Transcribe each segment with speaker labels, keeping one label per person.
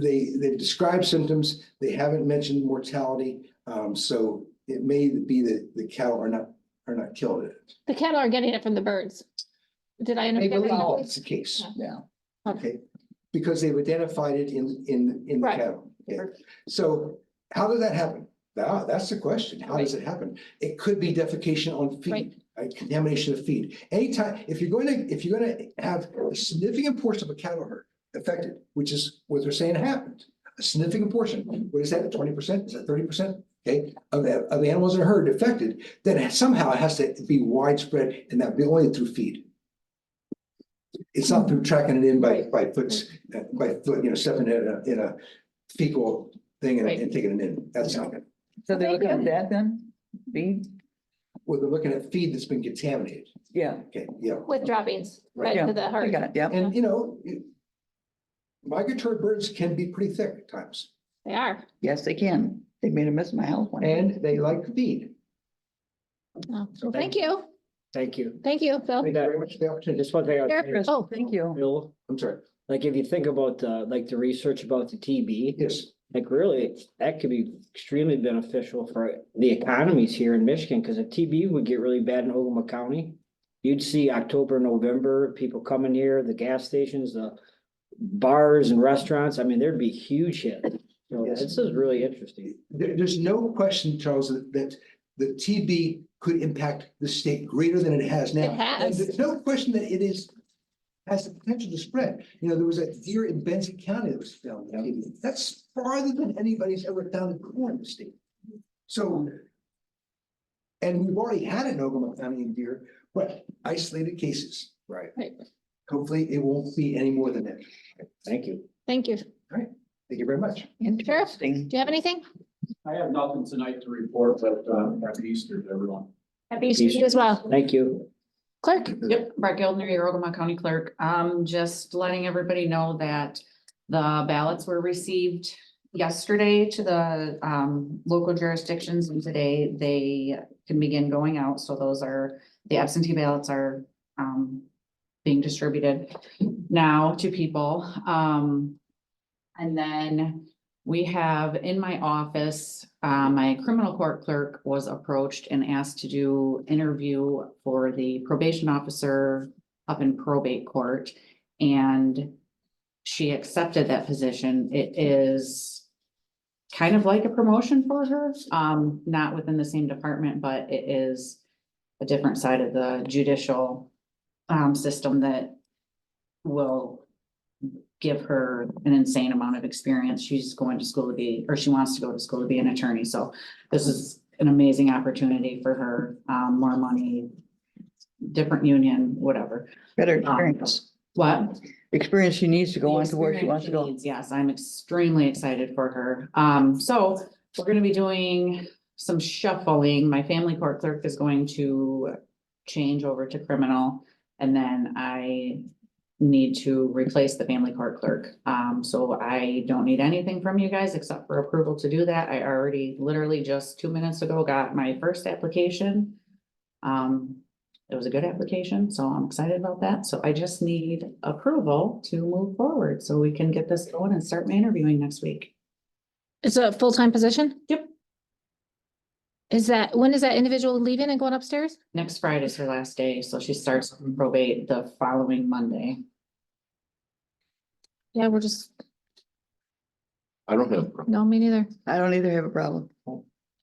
Speaker 1: They, they've described symptoms, they haven't mentioned mortality, um, so it may be that the cattle are not, are not killed. in it.
Speaker 2: The cattle are getting it from the birds. Did I understand?
Speaker 3: believe
Speaker 2: that
Speaker 3: Oh.
Speaker 1: That's the case,
Speaker 3: Yeah.
Speaker 1: okay, because they've identified it in, in, in the
Speaker 2: Right.
Speaker 1: cattle. Okay. So how did that happen? That, that's the question. How does it happen? It could be defecation on
Speaker 2: Right.
Speaker 1: feed, uh, contamination of feed. Anytime, if you're going to, if you're going to have a significant portion of a cattle herd affected, which is what they're saying happened, a significant portion, what is that, twenty percent? Is that thirty percent? Okay, of, the- of the animals in a herd affected, then somehow it has to be widespread and that be only through feed. It's not through tracking it in by,
Speaker 2: Right.
Speaker 1: by foots, uh, by foot, you know, stepping in a, in a fecal thing and, and taking it in. That's not it.
Speaker 3: So they're looking
Speaker 2: Thank
Speaker 3: at
Speaker 2: you.
Speaker 3: that then? Be,
Speaker 1: Well, they're looking at feed that's been contaminated.
Speaker 3: yeah,
Speaker 1: Okay, yeah.
Speaker 2: With droppings, right
Speaker 3: Yeah,
Speaker 2: to the
Speaker 3: I
Speaker 2: heart.
Speaker 3: got it, yeah.
Speaker 1: And you know, it- migratory birds can be pretty thick at times
Speaker 2: They are.
Speaker 3: Yes, they can. They made a mess in my house one. day.
Speaker 1: and they like feed.
Speaker 2: Oh,
Speaker 1: So
Speaker 2: Thank
Speaker 1: thank-
Speaker 2: you.
Speaker 4: Thank you.
Speaker 2: Thank you, Phil.
Speaker 4: Thank you very much for the opportunity. Just one thing. I would
Speaker 2: Sure.
Speaker 4: say,
Speaker 2: Oh,
Speaker 3: Thank you.
Speaker 4: Bill,
Speaker 1: I'm sorry.
Speaker 4: like if you think about, uh, like the research about the TB,
Speaker 1: Yes,
Speaker 4: like really, that could be extremely beneficial for the economies here in Michigan, because if TB would get really bad in Ogama County, you'd see October, November, people coming here, the gas stations, the bars and restaurants. I mean, there'd be huge hit. So
Speaker 1: Yes.
Speaker 4: this is really interesting.
Speaker 1: there, there's no question, Charles, that, that the TB could impact the state greater than it has now.
Speaker 2: It
Speaker 1: And
Speaker 2: has.
Speaker 1: There's no question that it is, has the potential to spread. You know, there was a deer in Benson County that was found. with TB. That's farther than anybody's ever found it before in the state. So. And we've already had an Ogama County in deer, but isolated cases. Right.
Speaker 2: Right.
Speaker 1: Hopefully it won't be any more than that.
Speaker 4: Thank you.
Speaker 2: Thank you. Do
Speaker 1: Thank you very much.
Speaker 3: Interesting.
Speaker 2: you have anything?
Speaker 5: I have nothing tonight to report, but um, happy Easter to everyone.
Speaker 2: Happy Easter to you as well.
Speaker 4: Thank you.
Speaker 2: Clerk?
Speaker 6: Yep, Brett Gildner, your Ogama County Clerk. Um, just letting everybody know that the ballots were received yesterday to the um local jurisdictions and today they can begin going out. So those are, the absentee ballots are um being distributed now to people. Um, and then we have in my office, uh, my criminal court clerk was approached and asked to do interview for the probation officer up in probate court. And she accepted that position. It is kind of like a promotion for her, um, not within the same department, but it is a different side of the judicial um, system that will give her an insane amount of experience. She's going to school to be, or she wants to go to school to be an attorney. So this is an amazing opportunity for her, um, more money, different union, whatever.
Speaker 3: Better experience.
Speaker 6: What?
Speaker 3: Experience she needs to go
Speaker 6: The
Speaker 3: on to where she
Speaker 6: experience
Speaker 3: wants to go.
Speaker 6: needs, Yes, I'm extremely excited for her. Um, so we're gonna be doing some shuffling. My family court clerk is going to change over to criminal. And then I need to replace the family court clerk. Um, so I don't need anything from you guys except for approval to do that. I already literally just two minutes ago got my first application. Um, it was a good application, so I'm excited about that. So I just need approval to move forward so we can get this going and start my interviewing next week.
Speaker 2: It's a full-time position?
Speaker 6: Yep.
Speaker 2: Is that, when is that individual leaving and going upstairs?
Speaker 6: Next Friday is her last day, so she starts on probate the following Monday.
Speaker 2: Yeah, we're just,
Speaker 7: I don't have,
Speaker 2: no, me neither.
Speaker 3: I don't either have a problem.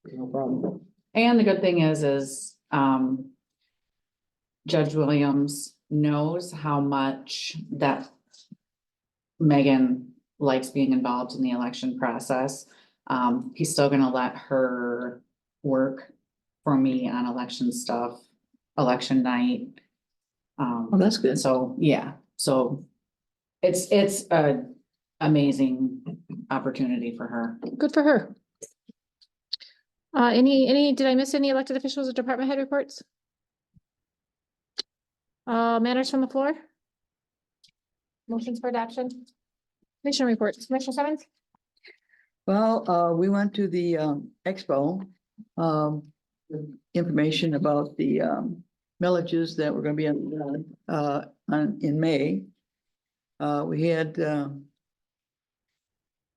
Speaker 4: No problem.
Speaker 6: And the good thing is, is, um, Judge Williams knows how much that Megan likes being involved in the election process. Um, he's still gonna let her work for me on election stuff, election night. Um,
Speaker 3: Well, that's good.
Speaker 6: and so, yeah, so it's, it's a amazing opportunity for her.
Speaker 2: Good for her. Uh, any, any, did I miss any elected officials or department head reports? Uh, matters from the floor? Motions for adoption? Commission reports, Commissioner Simmons?
Speaker 3: Well, uh, we went to the, um, expo, um, information about the, um, millages that were gonna be on, uh, on, in May. Uh, we had, um,